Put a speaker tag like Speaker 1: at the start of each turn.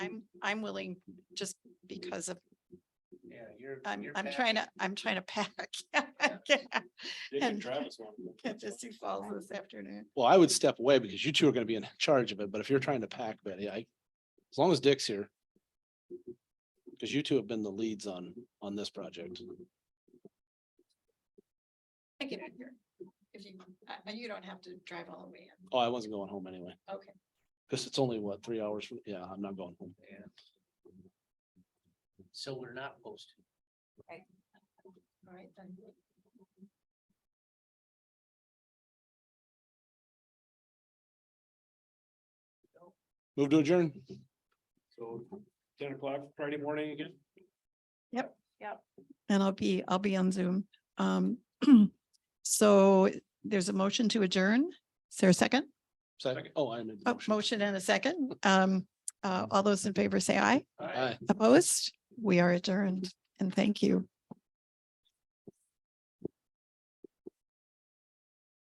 Speaker 1: I'm willing just because of,
Speaker 2: Yeah, you're.
Speaker 1: I'm,
Speaker 2: you're
Speaker 1: I'm
Speaker 2: back.
Speaker 1: trying to, I'm trying to pack.
Speaker 3: Dick and
Speaker 1: And-
Speaker 3: Travis want to go.
Speaker 1: Get to Sioux Falls this afternoon.
Speaker 4: Well, I would step away because you two are gonna be in charge of it, but if you're trying to pack, Betty, I, as long as Dick's here. Cause you two have been the leads on, on this project.
Speaker 1: I get it here. If you, uh, you don't have to drive all the way in.
Speaker 4: Oh, I wasn't going home anyway,
Speaker 1: Okay.
Speaker 4: cause it's only what, three hours from, yeah, I'm not going home.
Speaker 2: So we're not posted.
Speaker 1: All right, then.
Speaker 4: Move to adjourn.
Speaker 3: So ten o'clock Friday morning again?
Speaker 1: And I'll be, I'll be on Zoom. Um, so there's a motion to adjourn. Is there a second?
Speaker 4: Second, oh, I made. the
Speaker 1: Oh, motion and a second. Um, uh, all those in favor say aye.
Speaker 3: Aye.
Speaker 4: Aye.
Speaker 1: Opposed? We are adjourned and thank you.